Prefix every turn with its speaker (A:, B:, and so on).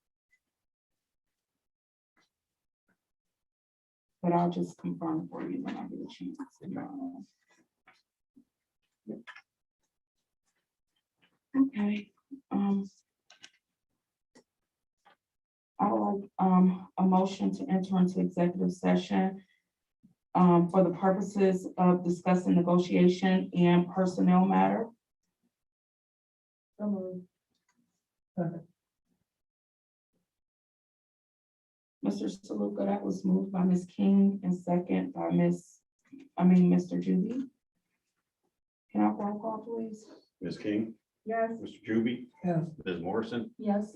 A: But I'll just confirm for you when I get a chance. Um, Okay, um. I would like, um, a motion to enter into executive session. Um, for the purposes of discussing negotiation and personnel matter. Mr. Saluka, that was moved by Ms. King and second by Ms., I mean, Mr. Judy. Can I roll call, please?
B: Ms. King,
A: Yes.
B: Mr. Juby,
C: Yes.
B: Ms. Morrison,
A: Yes.